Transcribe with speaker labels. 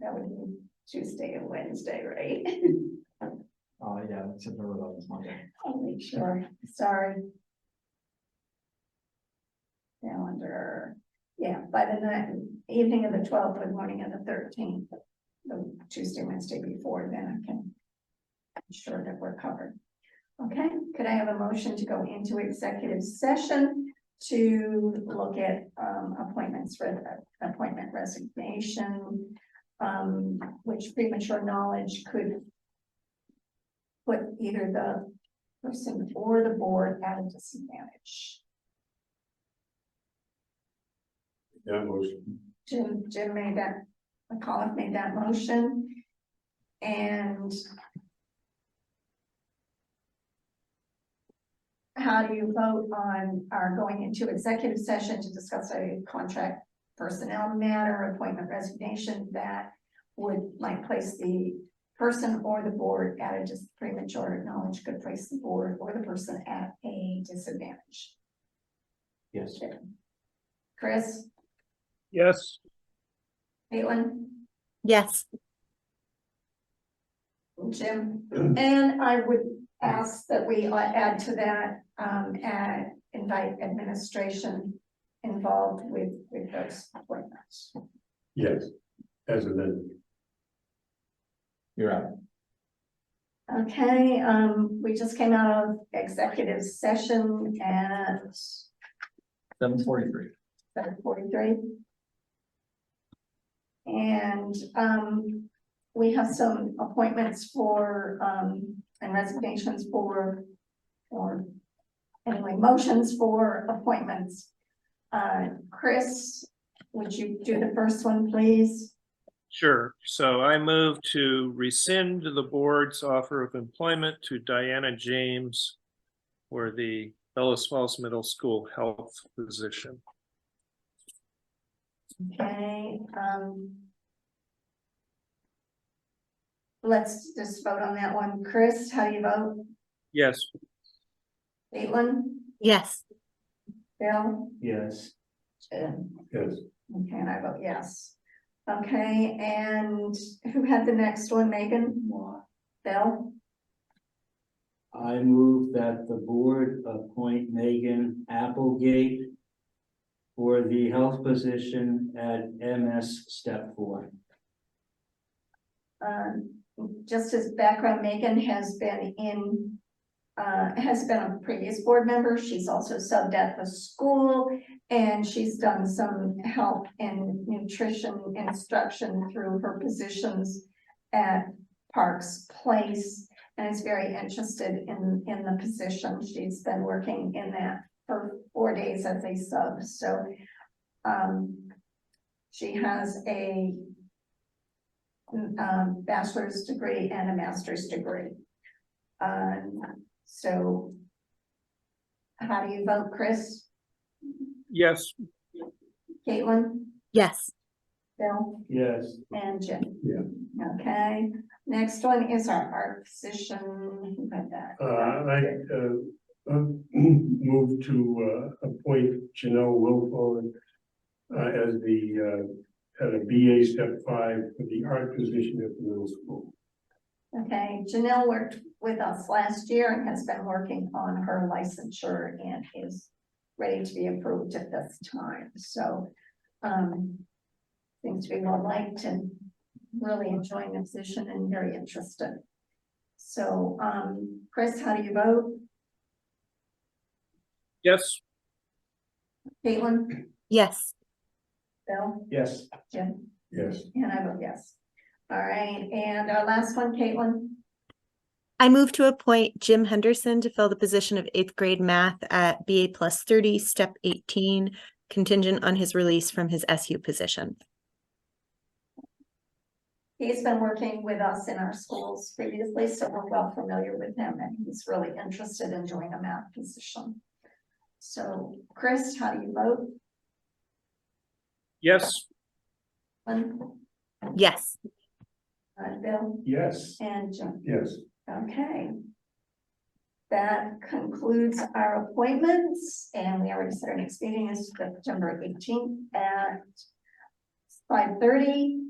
Speaker 1: That would be Tuesday and Wednesday, right?
Speaker 2: Uh, yeah, September eleventh, Monday.
Speaker 1: I'll make sure, sorry. Calendar, yeah, by the night, evening of the twelfth or morning of the thirteenth, the Tuesday, Wednesday before, then I can. I'm sure that we're covered. Okay, could I have a motion to go into executive session to look at um appointments, re- appointment resignation? Um, which premature knowledge could. Put either the person or the board at a disadvantage.
Speaker 3: Yeah, motion.
Speaker 1: Jim, Jim made that, McCullough made that motion. And how do you vote on our going into executive session to discuss a contract personnel matter, appointment resignation that would like place the person or the board at a just premature knowledge could place the board or the person at a disadvantage?
Speaker 2: Yes.
Speaker 1: Chris?
Speaker 4: Yes.
Speaker 1: Caitlin?
Speaker 5: Yes.
Speaker 1: Jim, and I would ask that we uh, add to that, um, and invite administration involved with, with those appointments.
Speaker 3: Yes, as amended.
Speaker 2: You're out.
Speaker 1: Okay, um, we just came out of executive session at
Speaker 2: Seven forty-three.
Speaker 1: seven forty-three. And, um, we have some appointments for, um, and resignations for, or anyway, motions for appointments. Uh, Chris, would you do the first one, please?
Speaker 4: Sure. So I move to rescind the board's offer of employment to Diana James for the Bellas Falls Middle School Health Physician.
Speaker 1: Okay, um. Let's just vote on that one. Chris, how do you vote?
Speaker 4: Yes,
Speaker 1: Caitlin?
Speaker 5: Yes.
Speaker 1: Bill?
Speaker 2: Yes.
Speaker 1: Jim?
Speaker 3: Yes,
Speaker 1: Okay, and I vote yes. Okay, and who had the next one, Megan? Bill?
Speaker 6: I move that the board appoint Megan Applegate for the health position at MS step four.
Speaker 1: Um, just as background, Megan has been in, uh, has been a previous board member. She's also subbed at the school. And she's done some help and nutrition instruction through her positions at Parks Place. And is very interested in, in the position. She's been working in that for four days as a sub, so. Um, she has a um, bachelor's degree and a master's degree. Um, so. How do you vote, Chris?
Speaker 4: yes,
Speaker 1: Caitlin?
Speaker 5: Yes.
Speaker 1: Bill?
Speaker 6: Yes.
Speaker 1: And Jim?
Speaker 3: Yeah.
Speaker 1: Okay, next one is our art position, who got that?
Speaker 3: uh, I, uh, uh, move to, uh, appoint Janelle Wilfo uh, as the, uh, at a BA step five for the art position at the middle school.
Speaker 1: Okay, Janelle worked with us last year and has been working on her licensure and is ready to be approved at this time, so, um, seems to be well liked and really enjoying the position and very interested. So, um, Chris, how do you vote?
Speaker 4: yes,
Speaker 1: Caitlin?
Speaker 5: Yes.
Speaker 1: Bill?
Speaker 6: Yes.
Speaker 1: Jim?
Speaker 3: Yes,
Speaker 1: And I vote yes. All right, and our last one, Caitlin?
Speaker 5: I move to appoint Jim Henderson to fill the position of eighth grade math at BA plus thirty, step eighteen, contingent on his release from his SU position.
Speaker 1: He's been working with us in our schools previously, so we're well familiar with him and he's really interested in doing a math position. So Chris, how do you vote?
Speaker 4: yes,
Speaker 1: Lynn?
Speaker 5: Yes.
Speaker 1: Uh, Bill
Speaker 3: yes,
Speaker 1: and Jim,
Speaker 3: yes.
Speaker 1: okay. That concludes our appointments and we already said our next meeting is September eighteenth at five thirty.